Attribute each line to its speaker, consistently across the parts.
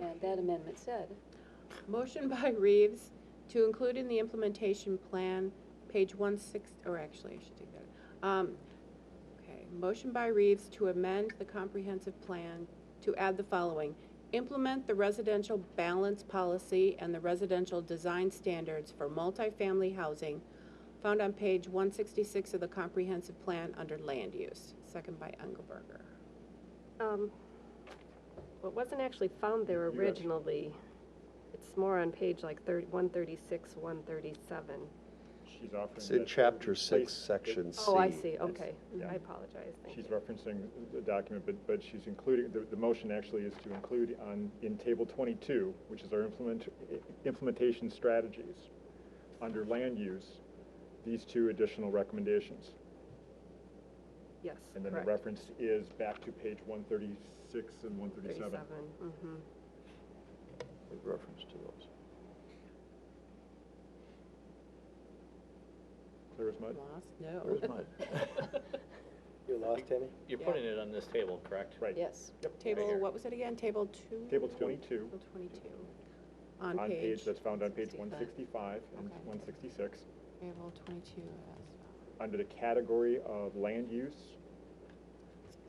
Speaker 1: And that amendment said,
Speaker 2: Motion by Reeves to include in the implementation plan, page one six, or actually, I should take that. Um, Okay, motion by Reeves to amend the comprehensive plan to add the following. Implement the residential balance policy and the residential design standards for multifamily housing found on page one sixty-six of the comprehensive plan under land use. Second by Engelberger.
Speaker 3: Um, Well, it wasn't actually found there
Speaker 4: You got-
Speaker 3: originally. It's more on page like thirty, one thirty-six, one thirty-seven.
Speaker 4: She's offering.
Speaker 5: It's in
Speaker 4: that-
Speaker 5: chapter
Speaker 4: Place-
Speaker 5: six, section C.
Speaker 3: Oh, I see,
Speaker 4: It's-
Speaker 3: okay.
Speaker 4: yeah.
Speaker 3: I apologize, thank
Speaker 4: She's
Speaker 3: you.
Speaker 4: referencing the document, but, but she's including, the, the motion actually is to include on, in table twenty-two, which is our implement, implementation strategies, under land use, these two additional recommendations.
Speaker 3: Yes,
Speaker 4: And then the
Speaker 3: correct.
Speaker 4: reference is back to page one thirty-six and one thirty-seven.
Speaker 3: mhm.
Speaker 5: With reference to those.
Speaker 4: Clear as mud?
Speaker 2: Lost? No.
Speaker 5: Where's mine? You lost, Tammy?
Speaker 6: You're
Speaker 2: Yeah.
Speaker 6: putting it on this table, correct?
Speaker 4: Right.
Speaker 1: yes.
Speaker 2: Table, what was it again? Table two?
Speaker 4: Table twenty-two,
Speaker 2: Table twenty-two. On
Speaker 4: on page,
Speaker 2: page.
Speaker 4: that's found on page
Speaker 2: 65.
Speaker 4: one sixty-five and
Speaker 2: Okay.
Speaker 4: one sixty-six.
Speaker 2: Table twenty-two.
Speaker 4: under the category of land use.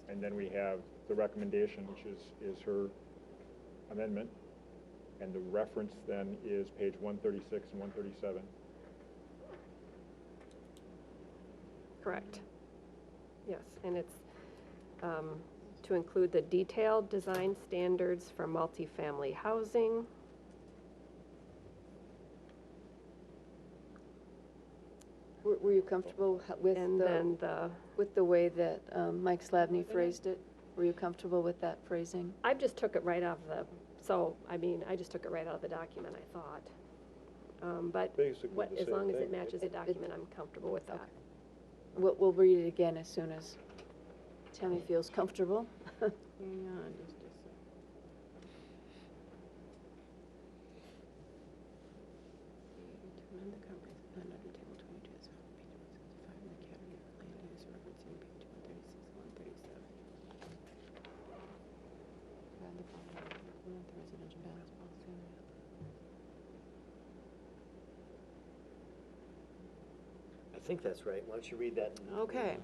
Speaker 4: And then we have the recommendation, which is, is her amendment. And the reference then is page one thirty-six and one thirty-seven.
Speaker 3: Correct. Yes, and it's um, to include the detailed design standards for multifamily housing.
Speaker 1: Were were you comfortable h- with
Speaker 3: And
Speaker 1: the,
Speaker 3: then the,
Speaker 1: with the way that um, Mike Slavny phrased it? Were you comfortable with that phrasing?
Speaker 3: I just took it right out of the, so, I mean, I just took it right out of the document, I thought. Um, But
Speaker 5: Basically
Speaker 3: what,
Speaker 5: the
Speaker 3: as
Speaker 5: same
Speaker 3: long as it
Speaker 5: thing.
Speaker 3: matches the
Speaker 1: It- it-
Speaker 3: document, I'm comfortable with that.
Speaker 1: Okay. We'll, we'll read it again as soon as Tammy feels comfortable.
Speaker 2: Hang on just a second. To amend the comprehensive plan under table twenty-two as found on page one sixty-five in the category of land use referencing page one thirty-six and one thirty-seven. Add the following, implement the residential balance policy.
Speaker 7: I think that's right. Why don't you read that? and-
Speaker 2: Okay.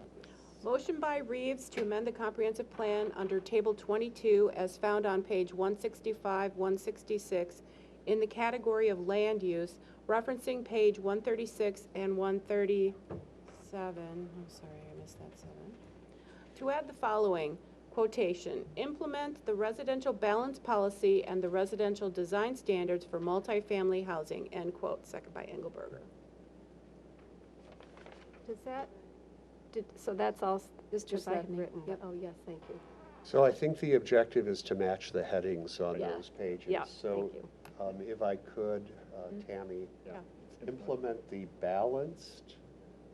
Speaker 2: Motion by Reeves to amend the comprehensive plan under Table 22 as found on page 165, 166, in the category of land use, referencing page 136 and 137, I'm sorry, I missed that seven, to add the following quotation, "Implement the residential balance policy and the residential design standards for multifamily housing," end quote, second by Engelberger.
Speaker 3: Does that, did, so that's all,
Speaker 1: This
Speaker 3: just
Speaker 1: just
Speaker 3: I had
Speaker 1: Slavny,
Speaker 3: written,
Speaker 1: yep.
Speaker 3: oh, yes, thank you.
Speaker 5: So I think the objective is to match the headings on
Speaker 3: Yeah.
Speaker 5: those pages.
Speaker 3: Yeah, thank you. Mm-hmm.
Speaker 5: So um, if I could, uh, Tammy,
Speaker 2: Yeah.
Speaker 5: implement the balanced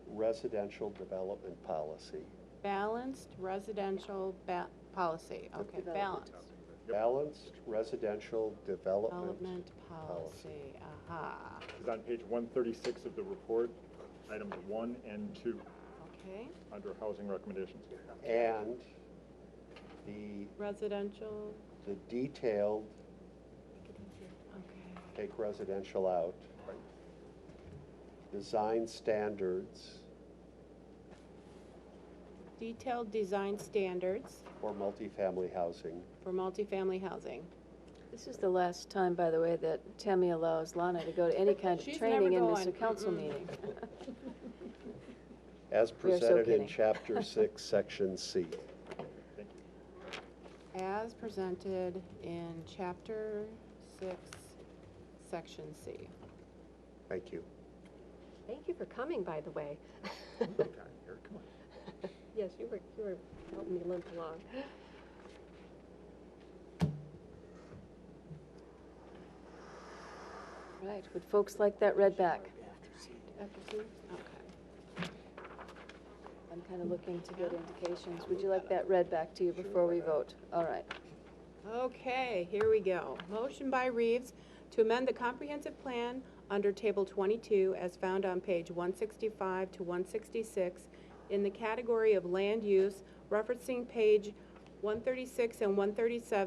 Speaker 5: residential development policy.
Speaker 2: Balanced residential ba- policy, okay,
Speaker 1: development.
Speaker 2: balanced.
Speaker 5: Balanced residential development.
Speaker 2: Development policy, aha,
Speaker 4: It's on page one thirty-six of the report, items one and two,
Speaker 2: okay.
Speaker 4: under housing recommendations.
Speaker 5: And the,
Speaker 2: Residential,
Speaker 5: the detailed,
Speaker 2: okay,
Speaker 5: take residential out. Design standards
Speaker 2: detailed design standards
Speaker 5: for multifamily housing.
Speaker 2: for multifamily housing.
Speaker 1: This is the last time, by the way, that Tammy allows Lana to go to any kind
Speaker 2: She's
Speaker 1: of training
Speaker 2: never
Speaker 1: in this
Speaker 2: going.
Speaker 1: council
Speaker 2: Mm-mm.
Speaker 1: meeting.
Speaker 5: As
Speaker 1: We are so
Speaker 5: presented in
Speaker 1: kidding.
Speaker 5: Chapter 6, Section C.
Speaker 4: Thank you.
Speaker 2: As presented in chapter six, section C.
Speaker 5: Thank you.
Speaker 3: Thank you for coming, by the way. Yes, you were, you were helping me limp along.
Speaker 1: Right, would folks like that read back?
Speaker 2: Okay.
Speaker 1: I'm kind of looking to get indications. Would you like that read back to you before we vote? All right.
Speaker 2: Okay, here we go. Motion by Reeves to amend the comprehensive plan under Table 22 as found on page 165 to 166 in the category of land use, referencing page 136 and 137